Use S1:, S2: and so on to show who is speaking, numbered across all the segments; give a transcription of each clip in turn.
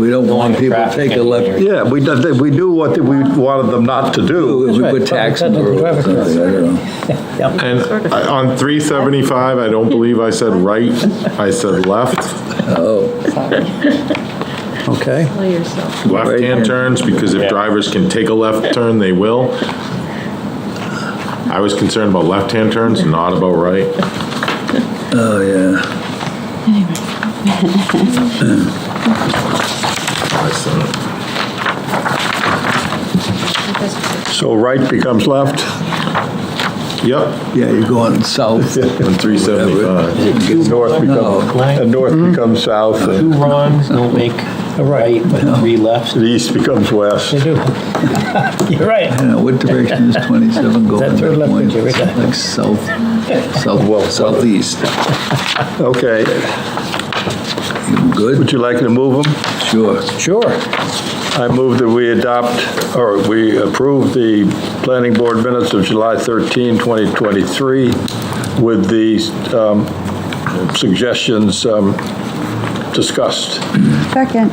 S1: We don't want
S2: Knowing the
S1: people to
S2: traffic
S1: take a
S2: engineer.
S1: left,
S3: Yeah, we, did- we do what we wanted them not to do.
S1: we
S4: right.
S1: put tax on the
S4: Public
S1: road. or
S4: traffic.
S1: something, I don't know.
S5: And I- on 375, I don't believe I said right, I said left,
S4: Okay,
S6: Tell yourself.
S5: left-hand turns, because if drivers can take a left turn, they will. I was concerned about left-hand turns, not about right.
S1: Oh, yeah.
S5: I said it.
S3: So right becomes left.
S5: Yep,
S1: Yeah, you're going south.
S5: on 375.
S3: North becomes,
S1: No.
S3: and north becomes south,
S2: Two
S3: and
S2: wrongs don't make a right, but three lefts.
S3: the east becomes west.
S4: they do. You're right.
S1: Yeah, What direction is 27 going?
S4: That's right, left,
S1: Going
S4: right there.
S1: Like south,
S3: Well,
S1: south, southeast.
S3: Okay,
S1: You Good,
S3: would you like to move them?
S1: sure.
S4: Sure.
S3: I move that we adopt, or we approve the planning board minutes of July 13, 2023, with the um, suggestions um, discussed.
S7: Second,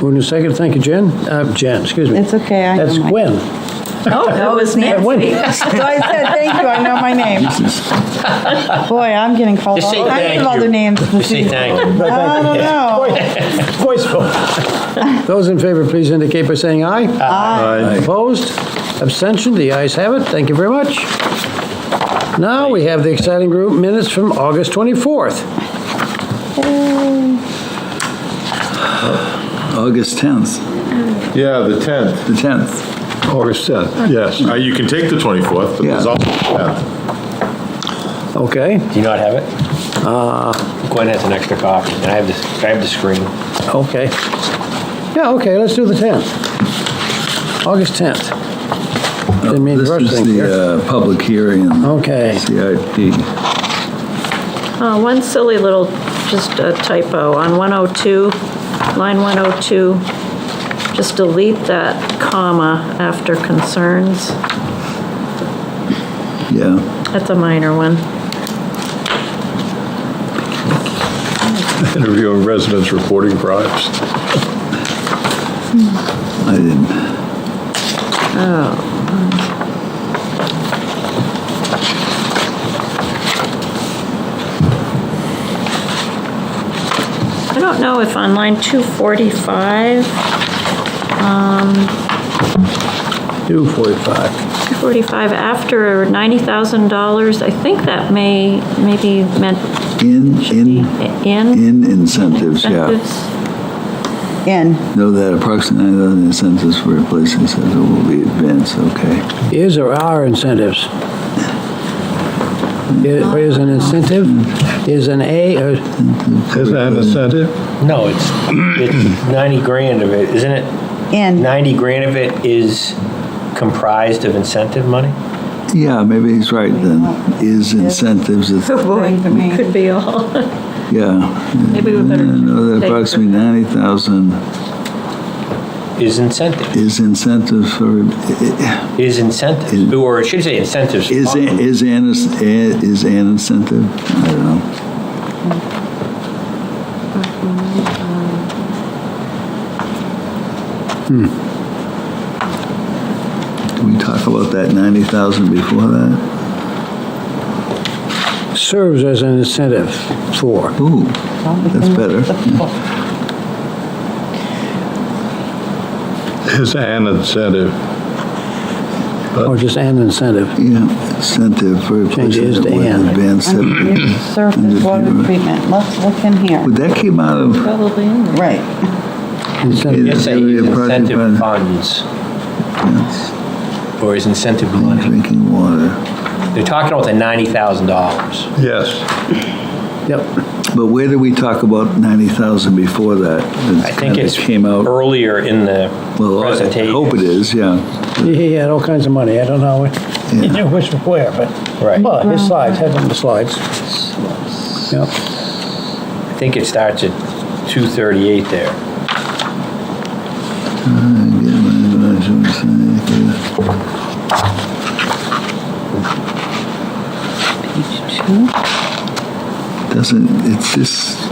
S4: Who in second? Thank you, Jen. Uh, Jen, excuse me.
S7: It's okay, I know
S4: That's
S7: my-
S4: Gwen.
S6: Oh, that was
S4: Gwen.
S7: so I said, thank you, I know my name. Boy, I'm getting called
S2: Just say
S7: all kinds
S2: thank
S7: of
S2: you.
S7: other names.
S2: Just say thank you.
S7: I don't know.
S4: Voiceful. Those in favor, please indicate by saying aye. Aye. Opposed? Abstention? The ayes have it. Thank you very much. Now, we have the exciting group minutes from August 24th.
S1: August 10th,
S5: Yeah, the 10th.
S1: the 10th.
S3: August 10th, yes.
S5: Uh, You can take the 24th, but there's
S1: Yeah.
S5: also the 10th.
S4: Okay,
S2: Do you not have it? Gwen has an extra copy, and I have this, I have the screen.
S4: okay. Yeah, okay, let's do the 10th. August 10th. Didn't mean to rush
S1: Uh, This is
S4: things here.
S1: the uh, public hearing,
S4: Okay.
S1: CIP.
S6: Uh, One silly little, just a typo, on 102, line 102, just delete that comma after concerns.
S1: Yeah,
S6: That's a minor one.
S3: Interviewing residents reporting bribes.
S1: I didn't.
S6: I don't know if on line 245, um,
S4: 2:45.
S6: 245, after $90,000, I think that may, maybe meant
S1: In, in,
S6: in
S1: in incentives, yeah.
S6: incentives.
S7: In,
S1: Know that approximately 9,000 incentives for replacing incentives will be advanced, okay.
S4: Is or are incentives?
S1: Uh,
S4: Is is an incentive?
S1: hmm.
S4: Is an A, uh, or
S3: Is that an incentive?
S2: No, it's, it's 90 grand of it, isn't it?
S7: in.
S2: 90 grand of it is comprised of incentive money?
S1: Yeah, maybe he's right then. Is incentives, it's-
S7: According to me.
S6: Could be all.
S1: yeah.
S6: Maybe we better
S1: Know that
S6: take-
S1: Uh, approximately 90,000
S2: Is incentive,
S1: is incentives for, i-
S2: is incentives, or I should say incentives.
S1: i- is, a- is an, is an incentive? I don't know. Did we talk about that 90,000 before that?
S4: serves as an incentive for.
S1: Ooh, that's better.
S3: Is an incentive.
S1: Uh,
S4: Or just an incentive.
S1: Yeah, incentive for
S4: Change it
S1: replacing
S4: to
S1: it with
S4: and.
S1: advanced. septic.
S7: Surface water treatment, let's look in here.
S1: But that came out of,
S6: Probably in there.
S7: Right.
S4: Incentive.
S2: Just say
S1: Area
S2: is
S1: project plan.
S2: incentive funds, or is incentive
S1: clean
S2: money.
S1: drinking water.
S2: They're talking about the $90,000.
S3: Yes.
S4: Yep.
S1: But where did we talk about 90,000 before that?
S2: I think it's
S1: Came out,
S2: earlier in the
S1: well, I
S2: presentation.
S1: hope it is, yeah.
S4: He had all kinds of money. I don't know which, where, but,
S2: Right.
S4: well, his slides, had them the slides. Yep.
S2: I think it starts at 238 there.
S7: Page two.
S1: Doesn't, it's just,